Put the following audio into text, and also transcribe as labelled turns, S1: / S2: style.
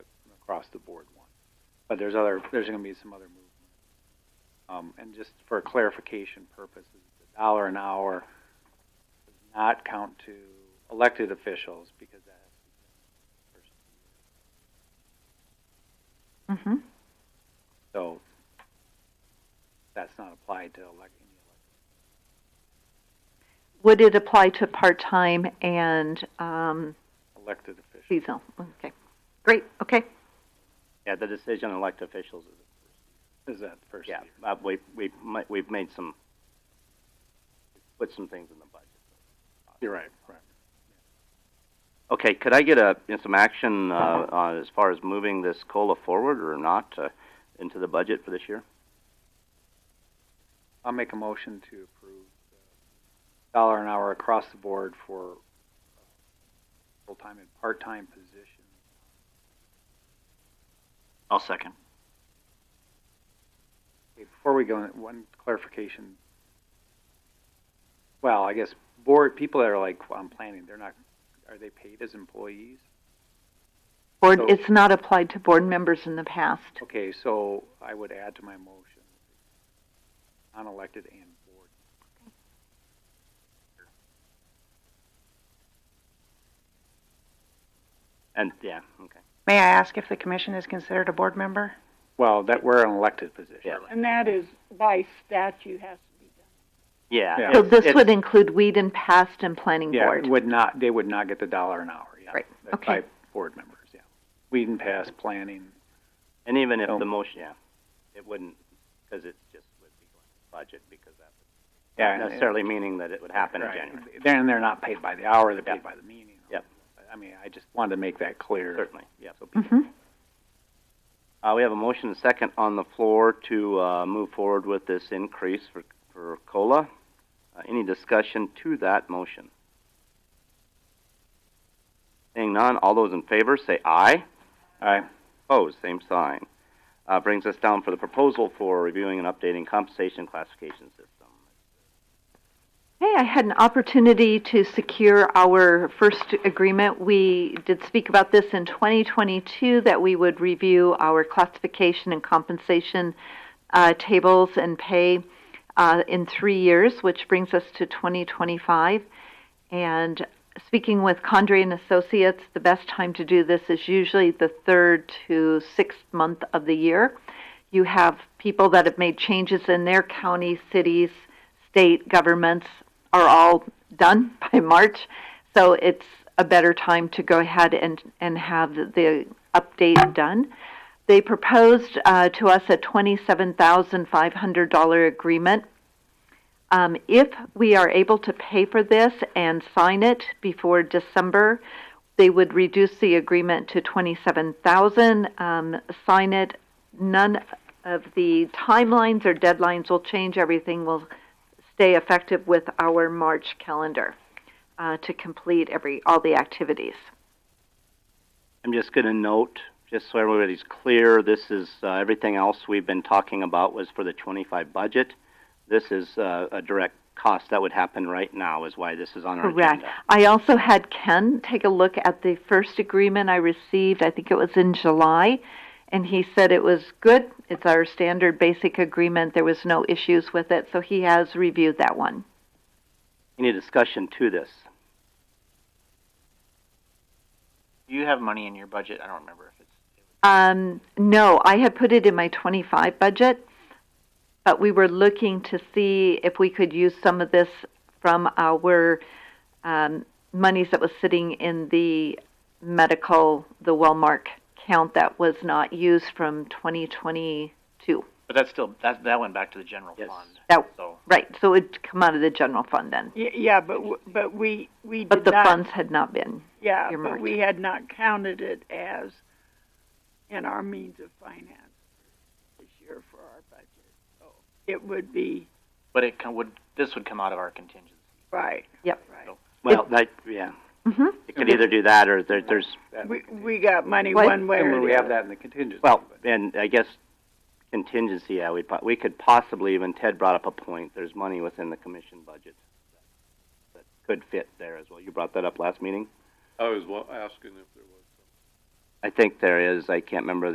S1: across the board one. But there's other, there's gonna be some other movement. Um, and just for clarification purposes, the dollar an hour does not count to elected officials because that has to be first.
S2: Mm-hmm.
S1: So that's not applied to elect, any elected.
S2: Would it apply to part-time and, um,
S1: elected officials.
S2: seasonal? Okay, great, okay.
S3: Yeah, the decision on elected officials is,
S1: Is that first
S3: yeah,
S1: year?
S3: uh, we, we, mi- we've made some, put some things in the budget.
S1: You're right, right.
S3: Okay, could I get a, you know, some action, uh, on as far as moving this COLA forward or not, uh, into the budget for this year?
S1: I'll make a motion to approve the dollar an hour across the board for uh, full-time and part-time positions.
S3: I'll second.
S1: Okay, Before we go, in, one clarification. Well, I guess board, people that are like, "Well, I'm planning, they're not, are they paid as employees?
S2: Board,
S1: So-
S2: it's not applied to board members in the past.
S1: Okay, so I would add to my motion, unelected and board.
S3: And, yeah, okay.
S4: May I ask if the commission is considered a board member?
S1: Well, that, we're an elected position.
S3: Yeah.
S5: And that is by statute has to be done.
S3: Yeah.
S1: Yeah.
S2: So
S3: it's-
S2: this
S3: it's-
S2: would include weed and past and planning
S1: Yeah,
S2: board.
S1: would not, they would not get the dollar an hour, yeah.
S2: Right,
S1: That's
S2: okay.
S1: by board members, yeah. We didn't pass planning,
S3: And even if
S1: So-
S3: the motion, yeah, it wouldn't, because it just would be going to budget because that would
S1: yeah.
S3: not
S1: and-
S3: necessarily meaning that it would happen in
S1: right.
S3: January.
S1: Then they're not paid by the hour, they're
S3: Yeah.
S1: paid by the meeting.
S3: Yep.
S1: I mean, I just wanted to make that clear.
S3: Certainly, yeah. So,
S2: Mm-hmm.
S3: uh, we have a motion and second on the floor to uh, move forward with this increase for for cola. Uh, any discussion to that motion? Seeing none, all those in favor say aye.
S1: Aye.
S3: Opposed, same sign. Uh, brings us down for the proposal for reviewing and updating compensation classification system.
S2: Hey, I had an opportunity to secure our first agreement. We did speak about this in 2022 that we would review our classification and compensation uh, tables and pay uh, in three years, which brings us to 2025. And speaking with Condrey and Associates, the best time to do this is usually the third to sixth month of the year. You have people that have made changes in their county, cities, state governments are all done by March. So it's a better time to go ahead and, and have the update done. They proposed uh, to us a $27,500 agreement. Um, if we are able to pay for this and sign it before December, they would reduce the agreement to 27,000, um, sign it. None of the timelines or deadlines will change. Everything will stay effective with our March calendar uh, to complete every all the activities.
S3: I'm just going to note, just so everybody's clear, this is uh, everything else we've been talking about was for the 25 budget. This is uh, a direct cost that would happen right now, is why this is on our
S2: Correct.
S3: agenda.
S2: I also had Ken take a look at the first agreement I received. I think it was in July, and he said it was good. It's our standard basic agreement. There was no issues with it, so he has reviewed that one.
S3: Any discussion to this?
S6: You have money in your budget. I don't remember if it's.
S2: Um, no, I had put it in my 25 budget, but we were looking to see if we could use some of this from our um, monies that was sitting in the medical, the Wellmark count that was not used from 2022.
S6: But that's still that that went back to the general
S3: Yes.
S6: fund.
S2: That-
S6: So
S2: Right, so it would come out of the general fund then,
S5: Y- Yeah, but, w- but we, we did not.
S2: but the funds had not been.
S5: Yeah, but
S2: earmarked.
S5: we had not counted it as in our means of finance this year for our budget. So It would be,
S6: but it come, would this would come out of our contingency.
S5: right.
S2: Yep.
S5: Right.
S3: Well, that, yeah,
S2: hmm
S3: it could either do that or there, there's,
S1: That-
S5: We, we got money
S2: What-
S5: one way or the
S1: And
S5: other.
S1: we have that in the contingency.
S3: well,
S1: but-
S3: and I guess contingency, yeah, we, po- we could possibly, even Ted brought up a point, there's money within the commission budget that could fit there as well. You brought that up last meeting?
S7: I was wa- asking if there was some
S3: I think there is, I can't remember